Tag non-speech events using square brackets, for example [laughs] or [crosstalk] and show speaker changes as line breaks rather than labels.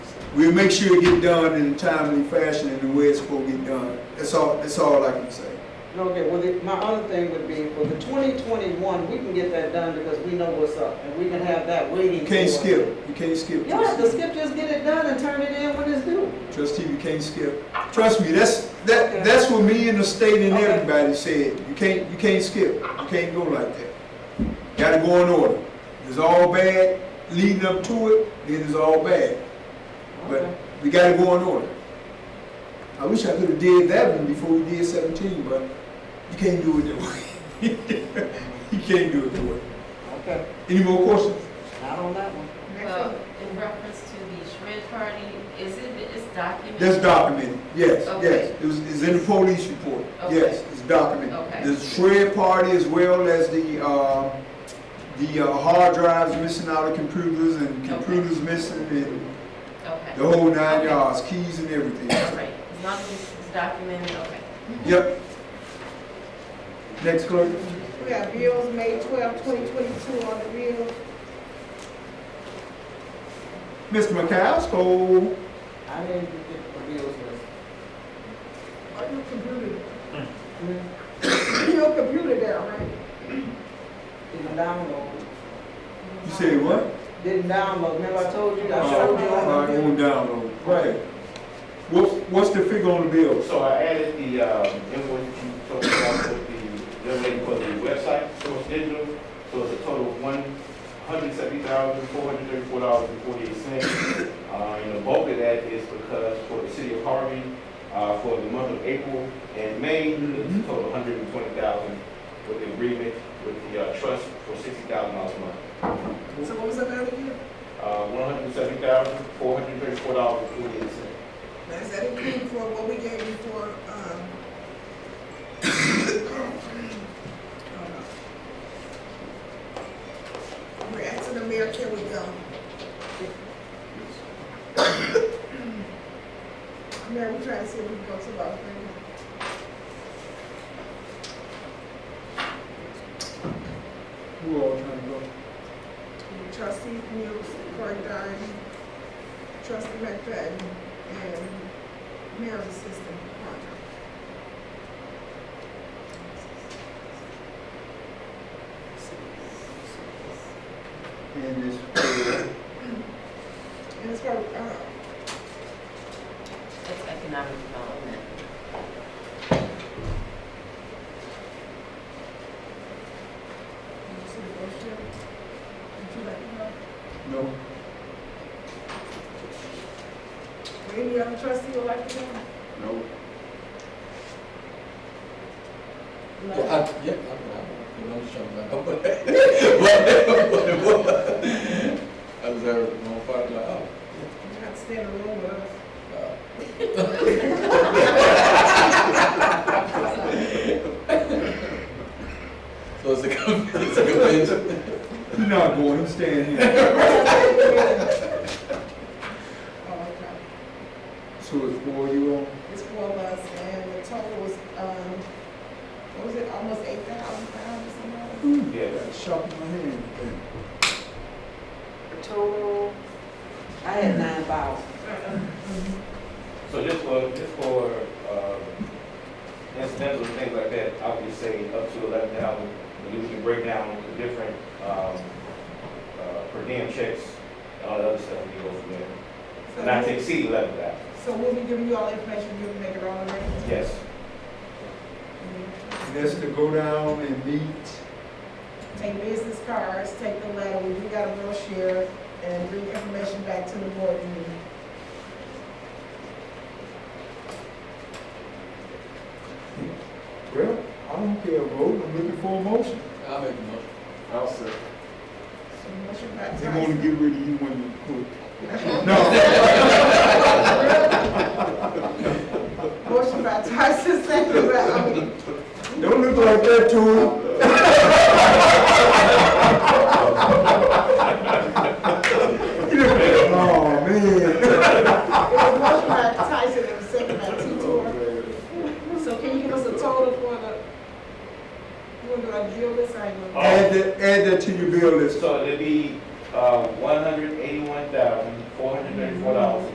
We'll make sure it get done in a timely fashion in the way it's supposed to get done. That's all, that's all I can say.
Okay, well, the- my other thing would be for the twenty twenty-one, we can get that done because we know what's up and we can have that waiting.
You can't
for us.
skip, you can't skip.
You don't have to skip, just get it done and turn it in when it's due.
Trustee, you can't skip. Trust me, that's, that, that's what me and the state and
Okay.
everybody said. You can't, you can't skip. You can't go like that. Gotta go in order. It's all bad leading up to it, then it's all bad. But
Okay.
we gotta go in order. I wish I could've did that one before we did seventeen, but you can't do it that way. [laughs] You can't do it that way.
Okay,
Any more questions?
not on that one.
Uh, In reference to the shred party, is it, it's documented?
That's documented, yes, yes.
Okay.
It was, it's in the police report,
Okay.
yes, it's documented.
Okay.
The shred party as well as the, uh, the uh, hard drives missing out of computers and computers missing and
Okay.
the whole nine
Okay.
yards, keys and everything.
All right, as long as it's documented, okay.
Yep. Next clerk.
We got bills May 12, 2022 on the bills.
Mr. McCaskill,
I didn't get the bills list.
On your computer. Your computer down, right?
Didn't download.
you say what?
Didn't download. Remember I told you, I
Oh,
showed you
all
on
right,
the
on
bill?
download. Right. What's, what's the figure on the bill?
So I added the um, invoice you told me about with the, young lady for the website, Source Digital. So it's a total of one hundred seventy thousand, four hundred thirty-four dollars and forty-eight cents. Uh, and the bulk of that is because for the city of Harvey, uh, for the month of April and May, it's a total of hundred and twenty thousand with the agreement with the uh, trust for sixty thousand dollars a month.
So what was that out of you?
Uh, one hundred seventy thousand, four hundred thirty-four dollars and forty-eight cents.
Now, is that including for what we gave you for, um? [coughs] oh, We're asking the mayor, can we go? [coughs] Mayor, we're trying to see if we can go to about three.
Who all trying to go?
Trustee Mills, Cory Dunn, Trustee McFadden, and Mayor's Assistant Parker.
And this,
And it's probably, uh,
That's economic development.
you see the brochure? Would you like to know?
no,
Or Any other trustee would like to know?
no.
Well,
No?
I, yeah, I know, I know what you're talking about. I was there, my father, like, oh,
You have to stay in the room with us.
uh, So it's a, con- [laughs] it's a convention.
You're not going, I'm staying [laughs] here.
[laughs] Oh, okay.
So it's four you on?
It's four of us, and the total was, um, what was it, almost eight thousand pounds or something?
Yeah.
Shop in my hand.
Total, I had nine thousand.
So just for, just for, uh, incidental things like that, I would just say up to eleven thousand, and you can break down the different, um, uh, per diem checks, and all the other stuff we go from there.
So
Not to
we'll-
exceed eleven thousand,
So we'll be giving you all the information, you'll make it all available?
yes.
Mm-hmm.
And that's to go down and meet.
take business cards, take the letter, we got a brochure, and bring information back to the board meeting.
Well, I don't care, vote, I'm looking for a motion.
I'll make a motion.
I'll say.
So motion by
They wanna
Tyson.
get rid of you when you quit. [laughs] No.
Motion by [laughs] Tyson, second by, um,
Don't look like that to him. Oh, man.
it was motion by Tyson, and second by Titor. So can you give us a total for the, you want to do a deal list, I know.
Add that, add that to your bill list.
So it'd be, uh, one hundred eighty-one thousand, four hundred thirty-four dollars